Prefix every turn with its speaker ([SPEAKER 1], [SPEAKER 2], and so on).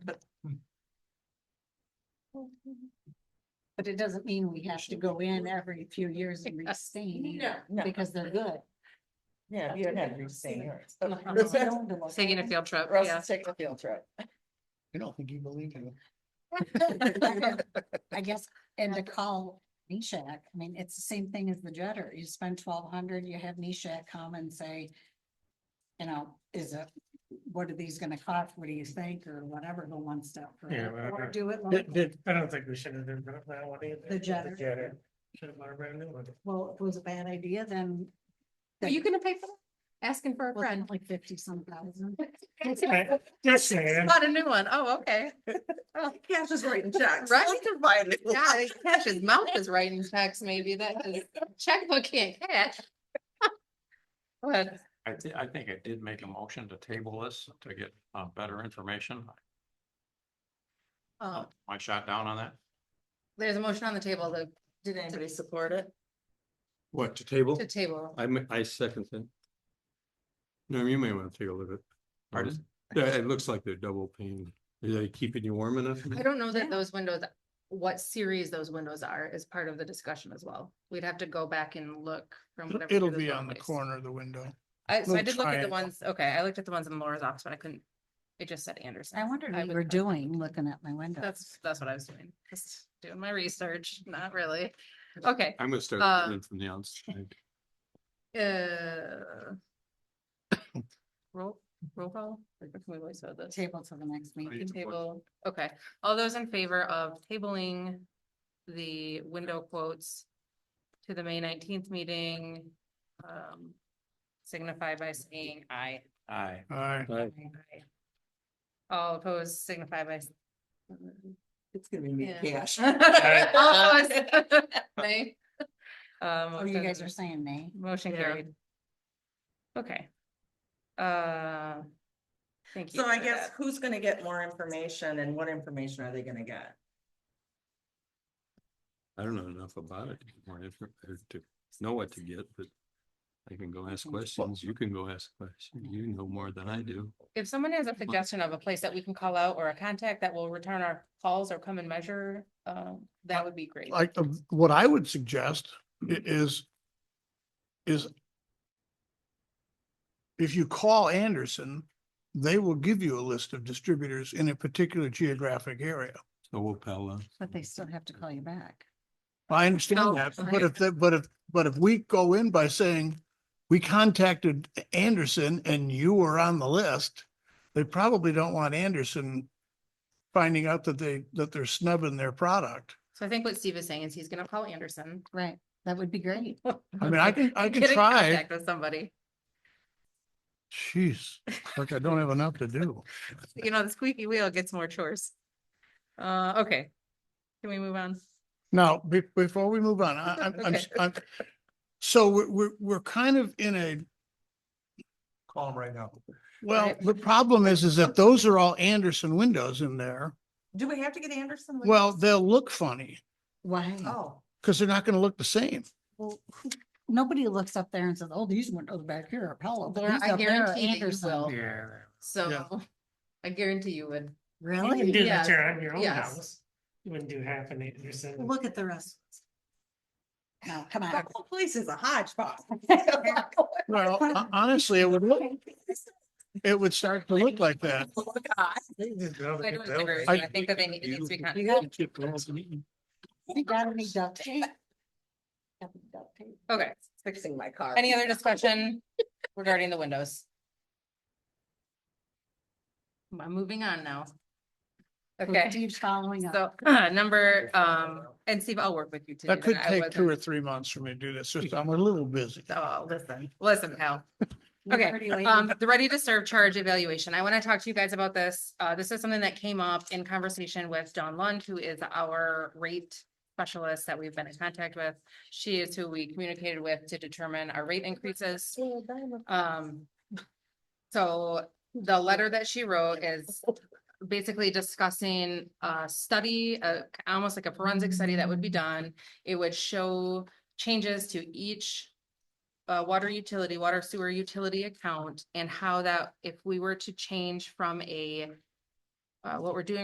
[SPEAKER 1] But it doesn't mean we have to go in every few years and restain.
[SPEAKER 2] No.
[SPEAKER 1] Because they're good.
[SPEAKER 2] Yeah, you don't have to say yours.
[SPEAKER 3] Taking a field trip, yeah.
[SPEAKER 2] Russ, take a field trip.
[SPEAKER 4] I don't think you believe me.
[SPEAKER 1] I guess, and to call Neshek, I mean, it's the same thing as the jetter. You spend twelve hundred, you have Neshek come and say, you know, is it, what are these gonna cost? What do you think? Or whatever, go one step
[SPEAKER 5] Yeah,
[SPEAKER 1] further. Or
[SPEAKER 5] whatever.
[SPEAKER 1] do it
[SPEAKER 5] Did,
[SPEAKER 1] like,
[SPEAKER 5] did, I don't think we should have done that one either.
[SPEAKER 1] The jetter.
[SPEAKER 5] Should have bought a brand new one.
[SPEAKER 1] well, if it was a bad idea, then.
[SPEAKER 3] Are you gonna pay for that? Asking for a
[SPEAKER 1] Wasn't it
[SPEAKER 3] friend.
[SPEAKER 1] Like fifty some thousand.
[SPEAKER 5] I- Just saying,
[SPEAKER 3] Bought a new one. Oh, okay.
[SPEAKER 2] Cash is writing checks.
[SPEAKER 3] Right?
[SPEAKER 2] Look at mine.
[SPEAKER 3] Yeah, cash, his mouth is writing checks, maybe that is checkbook can't cash. But
[SPEAKER 6] I thi- I think I did make a motion to table this to get uh better information.
[SPEAKER 3] um,
[SPEAKER 6] I shot down on that.
[SPEAKER 3] there's a motion on the table to,
[SPEAKER 2] Did anybody support it?
[SPEAKER 7] What, to table?
[SPEAKER 3] to table.
[SPEAKER 7] I, mi- I second that. No, you may want to take a look at.
[SPEAKER 6] Pardon?
[SPEAKER 7] Yeah, it looks like they're double pane. Are they keeping you warm enough?
[SPEAKER 3] I don't know
[SPEAKER 1] Yeah.
[SPEAKER 3] that those windows, what series those windows are is part of the discussion as well. We'd have to go back and look from
[SPEAKER 5] It'll-
[SPEAKER 3] whatever.
[SPEAKER 5] it'll
[SPEAKER 3] year those
[SPEAKER 5] be
[SPEAKER 3] were
[SPEAKER 5] on the
[SPEAKER 3] placed.
[SPEAKER 5] corner of the window.
[SPEAKER 3] I, so I
[SPEAKER 5] little
[SPEAKER 3] did look at the
[SPEAKER 5] triangle.
[SPEAKER 3] ones, okay, I looked at the ones in Laura's office, but I couldn't, it just said Anderson.
[SPEAKER 1] I wondered what
[SPEAKER 3] was
[SPEAKER 1] you were
[SPEAKER 3] not-
[SPEAKER 1] doing, looking at my window.
[SPEAKER 3] That's, that's what I was doing, just doing my research, not really. Okay,
[SPEAKER 7] I'm gonna start
[SPEAKER 3] Uh,
[SPEAKER 7] learning from the outside.
[SPEAKER 3] uh. Roll, roll call, or can we voice vote this?
[SPEAKER 1] Table to the next meeting.
[SPEAKER 3] Table, okay, all those in favor of tabling the window quotes to the May nineteenth meeting, um, signify by saying aye.
[SPEAKER 6] Aye.
[SPEAKER 5] Aye.
[SPEAKER 3] Aye. All opposed signify by. s-
[SPEAKER 2] It's gonna be me,
[SPEAKER 3] Yeah. Oh,
[SPEAKER 2] cash.
[SPEAKER 3] All opposed, nay.
[SPEAKER 5] Um,
[SPEAKER 3] Uh,
[SPEAKER 1] Oh, you guys
[SPEAKER 3] motion-
[SPEAKER 1] are saying nay?
[SPEAKER 3] Motion
[SPEAKER 2] Yeah.
[SPEAKER 3] carried. Okay. Uh, thank you.
[SPEAKER 2] So I
[SPEAKER 3] for
[SPEAKER 2] guess
[SPEAKER 3] that.
[SPEAKER 2] who's gonna get more information and what information are they gonna get?
[SPEAKER 7] I don't know enough about it anymore if- if to know what to get, but I can go ask questions. You can go ask questions. You know more than I do.
[SPEAKER 3] If someone has a suggestion of a place that we can call out or a contact that will return our calls or come and measure, um, that would be great.
[SPEAKER 5] Like, uh, what I would suggest i- is, is if you call Anderson, they will give you a list of distributors in a particular geographic area.
[SPEAKER 7] So we'll pal, uh,
[SPEAKER 1] But they still have to call you back.
[SPEAKER 5] I
[SPEAKER 3] Oh,
[SPEAKER 5] understand that,
[SPEAKER 3] right.
[SPEAKER 5] but if, that- but if, but if we go in by saying, we contacted Anderson and you were on the list, they probably don't want Anderson finding out that they, that they're snubbing their product.
[SPEAKER 3] So I think what Steve is saying is he's gonna call Anderson.
[SPEAKER 1] Right, that would be great.
[SPEAKER 5] I mean, I can, I
[SPEAKER 3] and
[SPEAKER 5] can
[SPEAKER 3] get in
[SPEAKER 5] try.
[SPEAKER 3] contact With somebody.
[SPEAKER 5] Jeez, like I don't have enough to do.
[SPEAKER 3] You know, the squeaky wheel gets more chores. Uh, okay. Can we move on?
[SPEAKER 5] Now, be- before we move on, I, I'm- I'm, s- I'm, so we're, we're, we're kind of in a. Calm right now. Well,
[SPEAKER 3] Right.
[SPEAKER 5] the problem is, is that those are all Anderson windows in there.
[SPEAKER 2] Do we have to get Anderson? with
[SPEAKER 5] Well,
[SPEAKER 2] us?
[SPEAKER 5] they'll look funny
[SPEAKER 1] Why?
[SPEAKER 2] Oh,
[SPEAKER 5] because they're not going to look the same.
[SPEAKER 1] Well, nobody looks up there and says, oh, these windows back here are Pella. but
[SPEAKER 3] Laura,
[SPEAKER 1] these
[SPEAKER 3] I
[SPEAKER 1] up there are
[SPEAKER 3] guarantee that you
[SPEAKER 1] Anderson."
[SPEAKER 3] will.
[SPEAKER 5] Yeah.
[SPEAKER 3] So I guarantee you would.
[SPEAKER 5] You
[SPEAKER 1] Really?
[SPEAKER 5] can do
[SPEAKER 3] Yes,
[SPEAKER 5] that to on your own
[SPEAKER 3] yes.
[SPEAKER 5] house. You wouldn't do half an Anderson.
[SPEAKER 1] Look at the rest. No, come
[SPEAKER 2] the
[SPEAKER 1] on.
[SPEAKER 2] whole place is a hodgepodge.
[SPEAKER 5] Well, hon- honestly, it would look, it would start to look like that.
[SPEAKER 2] Oh, God.
[SPEAKER 3] I don't disagree with you. I think that they need, it needs to be. con-
[SPEAKER 1] You gotta be duct tape. Gotta be duct tape.
[SPEAKER 3] Okay,
[SPEAKER 2] Fixing my car.
[SPEAKER 3] any other discussion regarding the windows? I'm moving on now.
[SPEAKER 1] So
[SPEAKER 3] Okay,
[SPEAKER 1] Steve's following up.
[SPEAKER 3] so number, um, and Steve, I'll work with you too.
[SPEAKER 5] That could
[SPEAKER 3] I
[SPEAKER 5] take two or
[SPEAKER 3] wasn't-
[SPEAKER 5] three months for me to do this. Just, I'm a little busy.
[SPEAKER 3] Oh, listen, listen, pal.
[SPEAKER 1] You're
[SPEAKER 3] okay,
[SPEAKER 1] pretty lady.
[SPEAKER 3] Um, the ready to serve charge evaluation. I want to talk to you guys about this. Uh, this is something that came up in conversation with Dawn Lund, who is our rate specialist that we've been in contact with. She is who we communicated with to determine our rate increases. Um, so the letter that she wrote is basically discussing a study, uh, almost like a forensic study that would be done. It would show changes to each uh, water utility, water sewer utility account and how that, if we were to change from a uh, what we're doing